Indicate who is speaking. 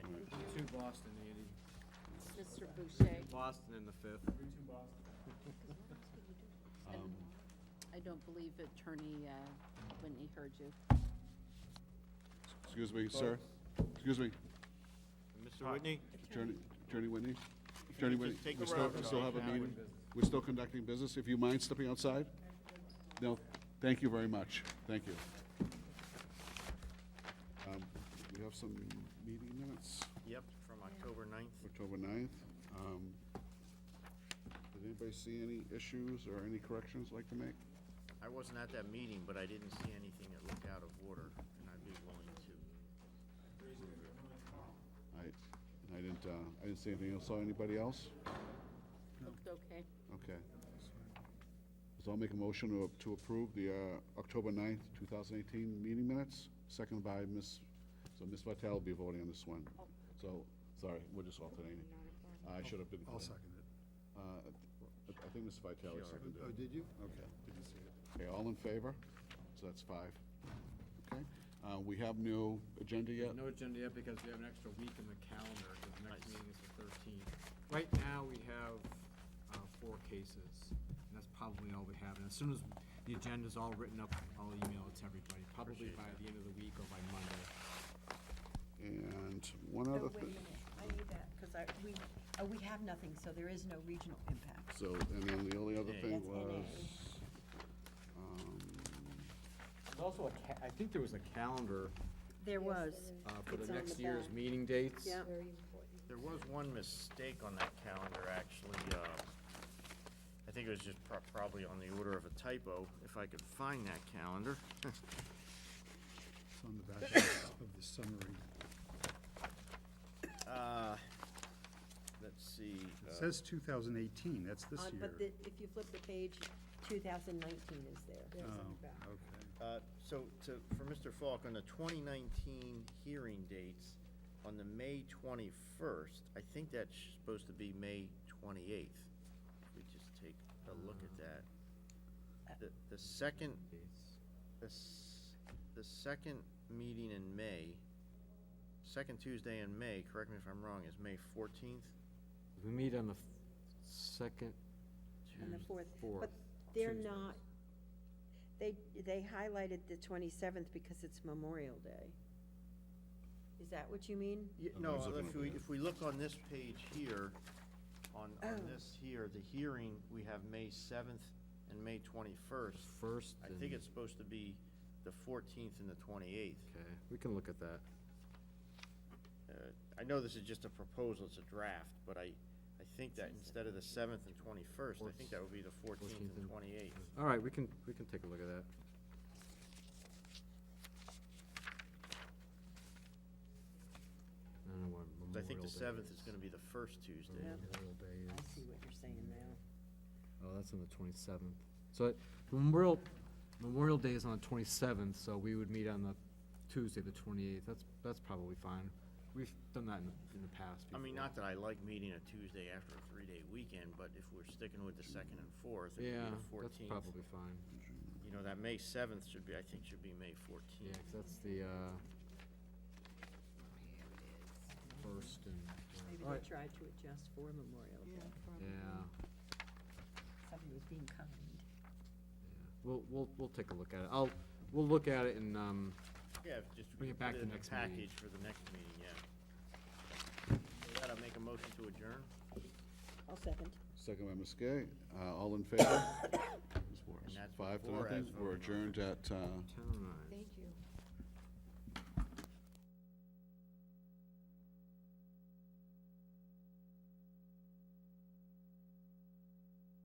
Speaker 1: Boston, Andy.
Speaker 2: Mr. Boucher,
Speaker 1: Boston in the fifth.
Speaker 3: Um,
Speaker 2: and I don't believe Attorney uh, Whitney heard you.
Speaker 4: Excuse me, sir. Excuse me,
Speaker 1: Mr. Whitney?
Speaker 4: Attorney, Attorney Whitney. Attorney Whitney,
Speaker 1: just take
Speaker 4: we
Speaker 1: a
Speaker 4: still,
Speaker 1: round.
Speaker 4: we still have a meeting. We're still conducting business. If you mind stepping outside? No, thank you very much. Thank you. Um, We have some meeting minutes,
Speaker 1: Yep, from October 9th.
Speaker 4: October 9th. Um, Did anybody see any issues or any corrections like to make?
Speaker 1: I wasn't at that meeting, but I didn't see anything that looked out of order, and I'd be willing to.
Speaker 4: I, I didn't, uh, I didn't see anything else. Saw anybody else?
Speaker 2: Looked okay.
Speaker 4: Okay. So I'll make a motion to- to approve the uh, October 9th, 2018 meeting minutes, seconded by Ms., so Ms. Vitale will be voting on this one.
Speaker 3: Oh.
Speaker 4: So, sorry, we're just alternating. I should have been.
Speaker 5: I'll second it.
Speaker 4: Uh, I I think Ms. Vitale seconded
Speaker 5: Oh,
Speaker 4: it.
Speaker 5: did you?
Speaker 4: Okay.
Speaker 5: Didn't see it.
Speaker 4: Okay, all in favor? So that's five. Okay. Uh, We have no agenda yet?
Speaker 6: No agenda yet because we have an extra week in the calendar, because the next
Speaker 1: Nice.
Speaker 6: meeting is the thirteenth. Right now, we have, uh, four cases, and that's probably all we have, and as soon as the agenda's all written up, I'll email it to everybody, probably
Speaker 1: Appreciate
Speaker 6: by the end of the week or by Monday.
Speaker 4: And one
Speaker 3: Oh,
Speaker 4: other
Speaker 3: wait a
Speaker 4: thing.
Speaker 3: minute, I need that, because I, we, oh, we have nothing, so there is no regional impact.
Speaker 4: So, and then the only other
Speaker 1: N A.
Speaker 4: thing
Speaker 3: That's N A.
Speaker 4: was. um,
Speaker 6: There's also a ca- I think there was a calendar,
Speaker 3: There was,
Speaker 6: uh, for
Speaker 2: It's
Speaker 6: the
Speaker 2: on
Speaker 6: next
Speaker 2: the
Speaker 6: year's
Speaker 2: back.
Speaker 6: meeting dates.
Speaker 2: Yeah.
Speaker 1: There was one mistake on that calendar, actually. uh, I think it was just pro- probably on the order of a typo, if I could find that calendar.
Speaker 5: It's on the back of the summary.
Speaker 1: Uh, Let's see.
Speaker 5: It
Speaker 1: uh,
Speaker 5: says 2018, that's
Speaker 3: Uh,
Speaker 5: this
Speaker 7: on-
Speaker 5: year.
Speaker 7: But the- if you flip the page, 2019 is there.
Speaker 5: Oh, okay.
Speaker 1: Uh, So to, for Mr. Falk, on the 2019 hearing dates, on the May 21st, I think that's supposed to be May 28th. If we just take a look at that. The, the second, the, s- the second meeting in May, second Tuesday in May, correct me if I'm wrong, is May 14th?
Speaker 6: We meet on the f- second,
Speaker 3: on the fourth.
Speaker 6: fourth.
Speaker 7: But they're
Speaker 6: Tuesday.
Speaker 7: not, they, they highlighted the 27th because it's Memorial Day. Is that what you mean?
Speaker 1: Ye-
Speaker 4: I'm
Speaker 1: No,
Speaker 4: just looking
Speaker 1: if
Speaker 4: over
Speaker 1: we,
Speaker 4: there.
Speaker 1: if we look on this page here, on, on
Speaker 7: Oh.
Speaker 1: this here, the hearing, we have May 7th and May 21st.
Speaker 6: first.
Speaker 1: I think
Speaker 6: and-
Speaker 1: it's supposed to be the 14th and the 28th.
Speaker 6: Okay, we can look at that.
Speaker 1: Uh, I know this is just a proposal, it's a draft, but I, I think that instead of the 7th and 21st, I think that would be the 14th
Speaker 6: 14th
Speaker 1: and
Speaker 6: and-
Speaker 1: 28th.
Speaker 6: All right, we can, we can take a look at that. I don't know what
Speaker 1: So I think
Speaker 6: Memorial
Speaker 1: the
Speaker 6: Day
Speaker 1: 7th is going to be the first Tuesday.
Speaker 3: Yeah.
Speaker 6: Memorial Day
Speaker 3: I
Speaker 6: is-
Speaker 3: see what you're saying now.
Speaker 6: Oh, that's on the twenty-seventh. So it- Memorial, Memorial Day is on the twenty-seventh, so we would meet on the Tuesday, the twenty-eighth. That's, that's probably fine. We've done that in the, in the past
Speaker 1: I
Speaker 6: before.
Speaker 1: mean, not that I like meeting a Tuesday after a three-day weekend, but if we're sticking with the 2nd and 4th, it would be
Speaker 6: Yeah,
Speaker 1: the
Speaker 6: that's
Speaker 1: 14th.
Speaker 6: probably fine.
Speaker 1: You know, that May 7th should be, I think should be May 14th.
Speaker 6: Yeah, 'cause that's the, uh, first and,
Speaker 3: Maybe
Speaker 6: Alright.
Speaker 3: they tried to adjust for Memorial Day.
Speaker 6: yeah.
Speaker 3: Somebody was being kind.
Speaker 6: We'll, we'll, we'll take a look at it. I'll, we'll look at it and, um,
Speaker 1: Yeah, if just.
Speaker 6: Bring it
Speaker 1: put
Speaker 6: back the
Speaker 1: in a
Speaker 6: next meeting.
Speaker 1: Package for the next meeting, yeah. With that, I'll make a motion to adjourn.
Speaker 3: I'll second.
Speaker 4: Second by Ms. Gay. Uh, All in favor? Ms. Morris.
Speaker 1: And that's
Speaker 4: Five to
Speaker 1: before I
Speaker 4: nothing.
Speaker 1: was
Speaker 4: We're
Speaker 1: voting on
Speaker 4: adjourned at uh,
Speaker 6: town,
Speaker 7: Thank you.